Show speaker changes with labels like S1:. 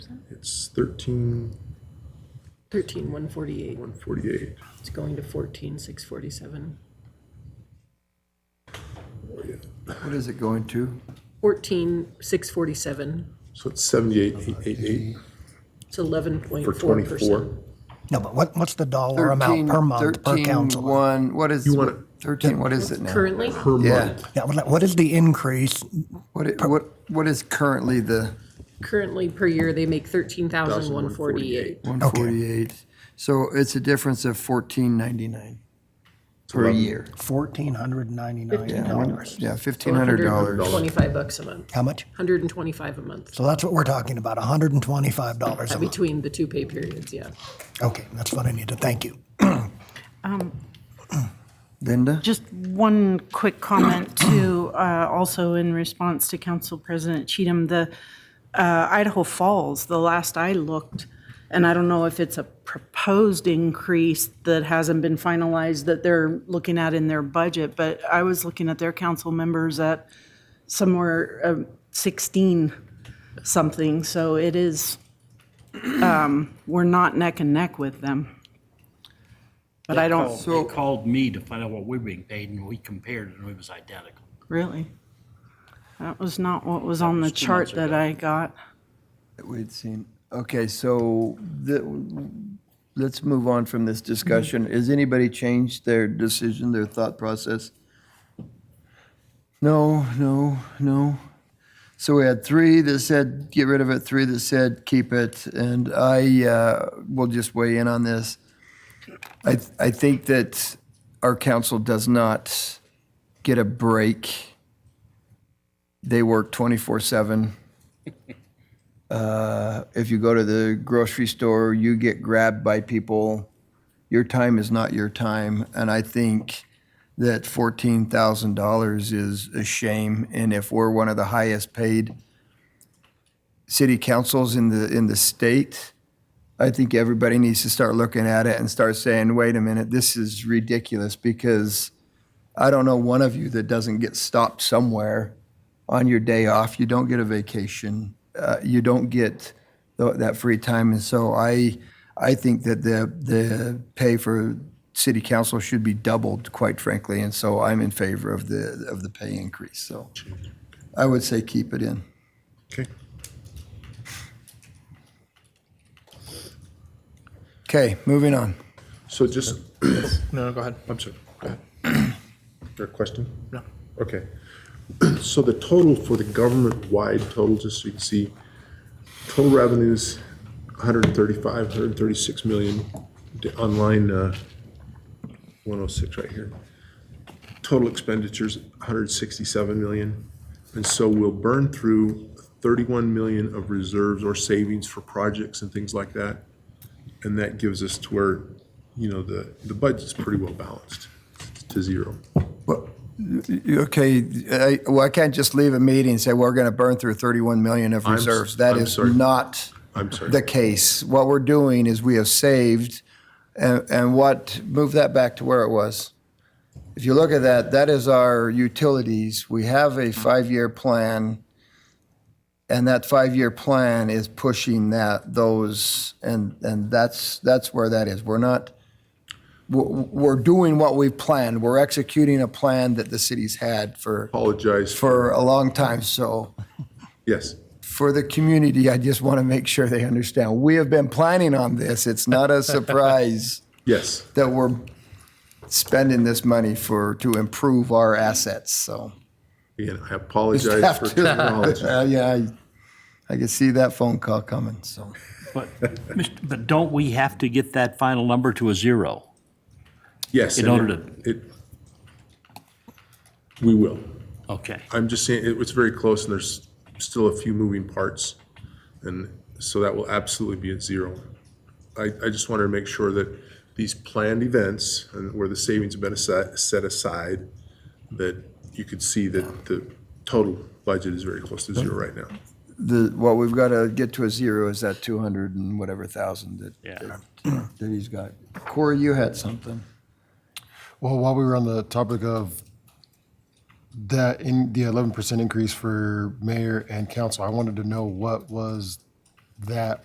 S1: It's thirteen
S2: 13,148.
S1: one forty-eight.
S2: It's going to 14,647.
S3: What is it going to?
S2: 14,647.
S1: So it's seventy-eight, eight, eight, eight
S2: It's 11.4%.
S1: for twenty-four.
S4: No, but what, what's the dollar amount per month per council?
S3: One, what is,
S1: You want it-
S3: thirteen, what is it now?
S2: Currently,
S1: Per
S3: Yeah,
S1: month,
S4: Yeah, what what is the increase?
S3: what, i- what, what is currently the
S2: currently per year, they make 13,148.
S3: one forty-eight? So it's a difference of fourteen ninety-nine per
S1: eleven-
S3: year.
S4: Fourteen hundred ninety-nine
S3: Yeah, one-
S4: dollars.
S3: Yeah, fifteen hundred dollars.
S2: 125 bucks a month,
S4: How much?
S2: 125 a month,
S4: So that's what we're talking about, hundred and twenty-five dollars a month.
S2: between the two pay periods, yeah.
S4: Okay, that's what I needed. Thank you.
S3: Linda?
S5: Just one quick comment to, uh, also in response to Council President Cheatham, the uh, Idaho Falls, the last I looked, and I don't know if it's a proposed increase that hasn't been finalized that they're looking at in their budget, but I was looking at their council members at somewhere um, 16 something, so it is, um, we're not neck and neck with them. But I don't,
S3: So-
S6: They called me to find out what we were being paid, and we compared, and it was identical.
S5: Really? That was not what was on the
S6: was two months
S5: chart that I got.
S3: that we'd seen. Okay, so the, let's move on from this discussion. Has anybody changed their decision, their thought process? No, no, no. So we had three that said get rid of it, three that said keep it, and I uh, will just weigh in on this. I, I think that our council does not get a break. They work 24 7 if you go to the grocery store, you get grabbed by people. Your time is not your time. And I think that $14,000 is a shame. And if we're one of the highest paid city councils in the, in the state, I think everybody needs to start looking at it and start saying, wait a minute, this is ridiculous because I don't know one of you that doesn't get stopped somewhere on your day off. You don't get a vacation. Uh, you don't get th- that free time. And so I, I think that the the pay for city council should be doubled, quite frankly. And so I'm in favor of the of the pay increase. So I would say keep it in.
S1: okay.
S3: Okay, moving on.
S1: So just,
S7: No, go ahead.
S1: I'm sorry, go ahead. Is there a question?
S7: No.
S1: Okay. So the total for the government-wide total, just so you can see, total revenues, 135, 136 million, d- on line uh, 106 right here. Total expenditures, 167 million. And so we'll burn through 31 million of reserves or savings for projects and things like that. And that gives us to where, you know, the, the budget's pretty well balanced to zero.
S3: Well, y- y- Okay, I, well, I can't just leave a meeting and say, we're going to burn through 31 million of
S1: I'm s-
S3: reserves. That
S1: I'm
S3: is
S1: sorry.
S3: not
S1: I'm sorry.
S3: the case. What we're doing is we have saved, and, and what, move that back to where it was. If you look at that, that is our utilities. We have a five-year plan, and that five-year plan is pushing that, those, and, and that's, that's where that is. We're not, we're, we're doing what we've planned. We're executing a plan that the city's had for,
S1: Apologize
S3: for a long time, so
S1: Yes,
S3: for the community, I just want to make sure they understand. We have been planning on this. It's not a surprise
S1: yes.
S3: that we're spending this money for, to improve our assets, so.
S1: Again, I
S3: Just
S1: apologize
S3: have
S1: for
S3: to-
S1: terminology.
S3: Uh, Yeah, I, I can see that phone call coming, so.
S6: But, Mr. but don't we have to get that final number to a zero?
S1: Yes.
S6: In
S1: and
S6: order
S1: it- It, we will.
S6: Okay.
S1: I'm just saying, it was very close and there's still a few moving parts. And so that will absolutely be at zero. I, I just wanted to make sure that these planned events and where the savings have been asi- set aside, that you could see that the total budget is very close to zero right now.
S3: The, what we've got to get to a zero is that 200 and whatever thousand that,
S6: Yeah.
S3: that that he's got. Corey, you had something.
S8: Well, while we were on the topic of that, in the eleven percent increase for mayor and council, I wanted to know what was that